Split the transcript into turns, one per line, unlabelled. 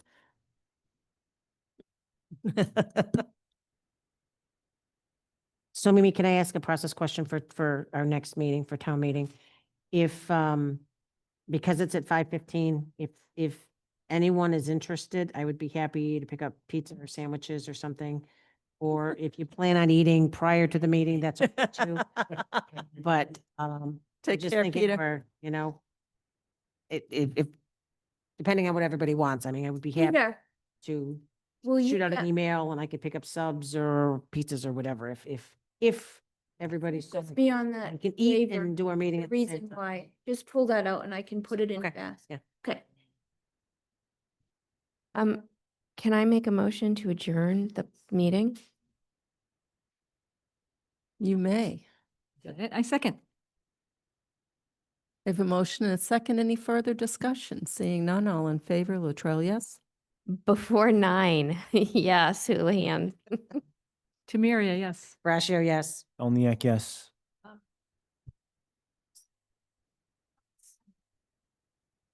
So Mimi, can I ask a process question for, for our next meeting, for town meeting? If, um, because it's at five fifteen, if, if anyone is interested, I would be happy to pick up pizza or sandwiches or something. Or if you plan on eating prior to the meeting, that's okay too, but, um, I
Take
just
care,
think if
Peter.
we're, you know, it, if, if, depending on what everybody wants, I mean, I would be happy
Peter,
to
will you,
shoot out
get-
an email and I could pick up subs or pizzas or whatever if, if, if everybody's. so
just be on that,
and can eat
waiver
and do our meeting.
the
at the same
reason
time.
why, just pull that out and I can put it in
Okay,
fast.
yeah.
Okay,
Um, can I make a motion to adjourn the meeting?
You may. I second. I have a motion and a second. Any further discussion? Seeing none, all in favor, Latrell, yes?
Before nine, yes, Houlihan.
Tamiria, yes.
Brashear, yes.
Elniak, yes.